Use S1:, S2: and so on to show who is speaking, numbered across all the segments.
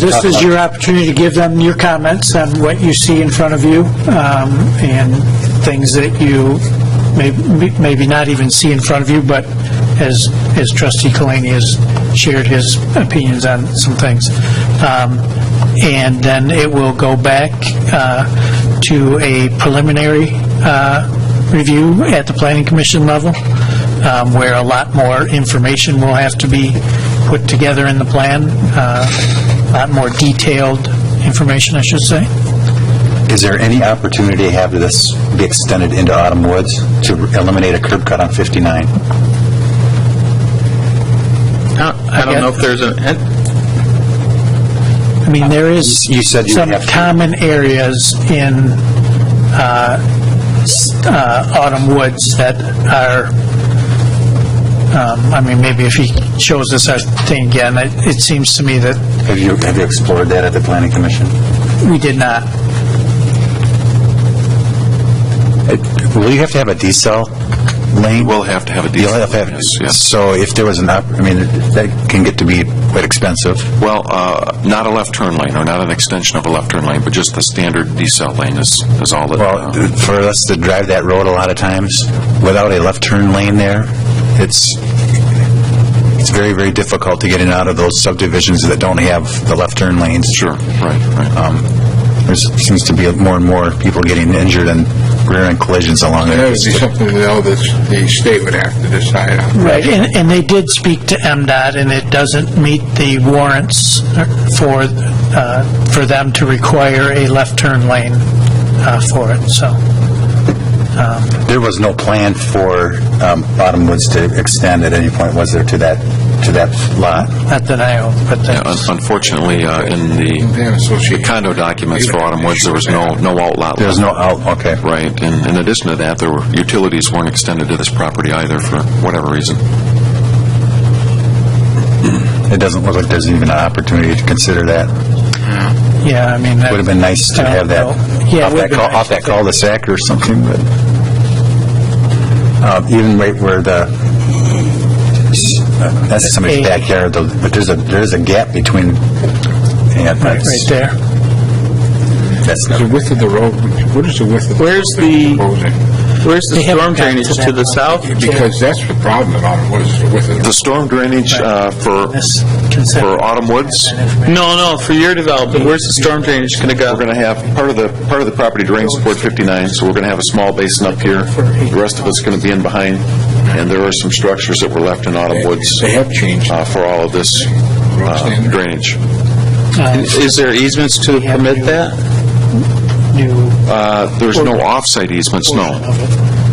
S1: This is your opportunity to give them your comments on what you see in front of you um, and things that you may- maybe not even see in front of you, but as as trustee Kalani has shared his opinions on some things. Um, And then it will go back uh, to a preliminary uh, review at the planning commission level, um, where a lot more information will have to be put together in the plan, uh, a lot more detailed information, I should say.
S2: Is there any opportunity to have this be extended into Autumn Woods to eliminate a curb cut on 59?
S3: I don't know if there's an,
S1: I mean, there is
S2: You said you
S1: some
S2: have to-
S1: common areas in uh, s- uh, Autumn Woods that are, um, I mean, maybe if he shows us our thing again, it it seems to me that
S2: Have you, have you explored that at the planning commission?
S1: we did not,
S2: It- Will you have to have a decel lane?
S3: we'll have to have a
S2: You'll
S3: detail.
S2: have to have,
S3: Yes, yes.
S2: so if there was an, op- I mean, that can get to be quite expensive.
S3: Well, uh, not a left turn lane, or not an extension of a left turn lane, but just the standard decel lane is, is all that.
S2: Well,
S3: uh,
S2: for us to drive that road a lot of times without a left turn lane there, it's, it's very, very difficult to get in and out of those subdivisions that don't have the left turn lanes.
S3: Sure, right, right.
S2: Um, There seems to be more and more people getting injured and rear-end collisions along
S4: That
S2: there.
S4: would be something though that the state would have to decide on.
S1: right, and and they did speak to MDOT, and it doesn't meet the warrants for, uh, for them to require a left turn lane uh, for it, so.
S2: There was no plan for um, Bottomwoods to extend at any point, was there, to that, to that lot?
S1: Not that I own, but
S3: Yeah, un-
S1: that's,
S3: Unfortunately, uh, in the
S4: Plan
S3: the
S4: association.
S3: condo documents for Autumn Woods, there was no, no outlet.
S2: There was no out, okay.
S3: Right, and in addition to that, there were, utilities weren't extended to this property either for whatever reason.
S2: It doesn't look like there's even an opportunity to consider that.
S1: yeah, I mean. that-
S2: Would have been nice to have that
S1: I don't know. Yeah, it
S2: off
S1: would have
S2: that,
S1: been
S2: cul- off
S1: nice.
S2: that cul-de-sac or something, but uh, even right where the, that's somebody's
S1: Hey.
S2: backyard, though, but there's a, there's a gap between, yeah,
S1: Right, right
S2: that's,
S1: there.
S2: that's
S4: The width of the road, what is the width of the road?
S5: Where's the-
S4: proposing?
S5: Where's the
S1: They haven't
S5: storm
S1: gotten to
S5: drainage to
S1: that
S5: the
S1: one.
S5: south?
S4: Because that's the problem about it, was the width of the
S3: The storm drainage uh, for,
S1: This consent-
S3: for Autumn Woods,
S5: No, no, for your development, where's the storm drainage going to go?
S3: We're going to have, part of the, part of the property drains toward 59, so we're going to have a small basin up here. The rest of it's going to be in behind, and there are some structures that were left in Autumn Woods
S4: They have changed.
S3: uh, for all of this
S4: Road
S3: uh,
S4: standard.
S3: drainage.
S5: Is there easements to permit that?
S1: New,
S3: Uh, There's no offsite easements, no.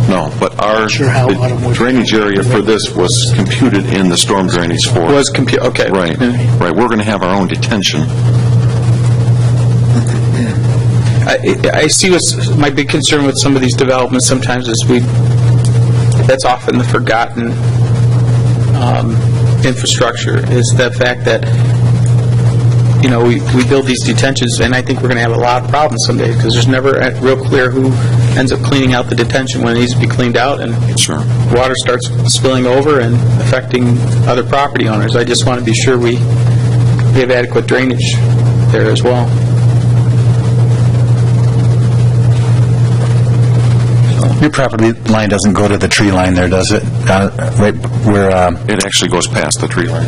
S3: No, but our
S1: Sure how Autumn Woods-
S3: drainage area for this was computed in the storm drainage for...
S5: Was compu, okay.
S3: Right, right. We're going to have our own detention.
S5: I, I- I see what's, my big concern with some of these developments sometimes is we, that's often the forgotten um, infrastructure, is the fact that, you know, we, we build these detentions, and I think we're going to have a lot of problems someday, because there's never uh, real clear who ends up cleaning out the detention when it needs to be cleaned out, and
S3: Sure.
S5: water starts spilling over and affecting other property owners. I just want to be sure we, we have adequate drainage there as well.
S2: Your property line doesn't go to the tree line there, does it? Uh, Right where, um,
S3: It actually goes past the tree line,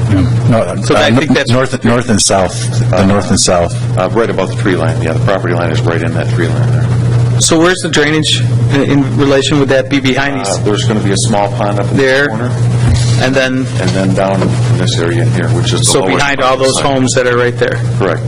S2: no,
S5: So I think
S2: uh,
S5: that's-
S2: north, north and south, the north and south.
S3: Uh, right above the tree line. Yeah, the property line is right in that tree line there.
S5: So where's the drainage in- in relation, would that be behind
S3: Uh,
S5: these?
S3: There's going to be a small pond up in the
S5: There.
S3: corner,
S5: And then,
S3: and then down in this area in here, which is the
S5: so
S3: lowest
S5: behind
S3: part
S5: all
S3: of the
S5: those
S3: site.
S5: homes that are right there?
S3: Correct.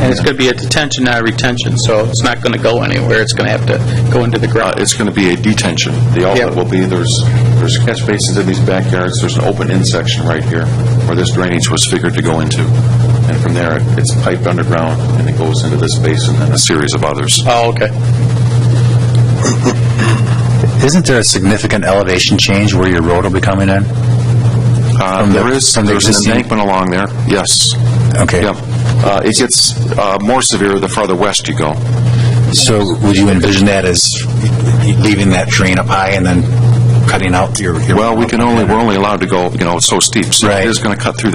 S5: And it's going to be a detention, not a retention, so it's not going to go anywhere, it's going to have to go into the
S3: Uh,
S5: ground.
S3: It's going to be a detention. The outlet will be, there's, there's catch basins in these backyards, there's an open in section right here where this drainage was figured to go into. And from there, it- it's piped underground, and it goes into this basin and a series of others.
S5: Oh, okay.
S2: Isn't there a significant elevation change where your road will be coming in?
S3: Uh,
S2: From the-
S3: There is,
S2: from the
S3: there's an
S2: existing-
S3: embankment along there, yes.
S2: Okay.
S3: Yep. Uh, It gets uh, more severe the farther west you go.
S2: So would you envision that as leaving that terrain up high and then cutting out your... your-
S3: Well, we can only, we're only allowed to go, you know, it's so steep. So
S2: Right.
S3: It is going to cut through that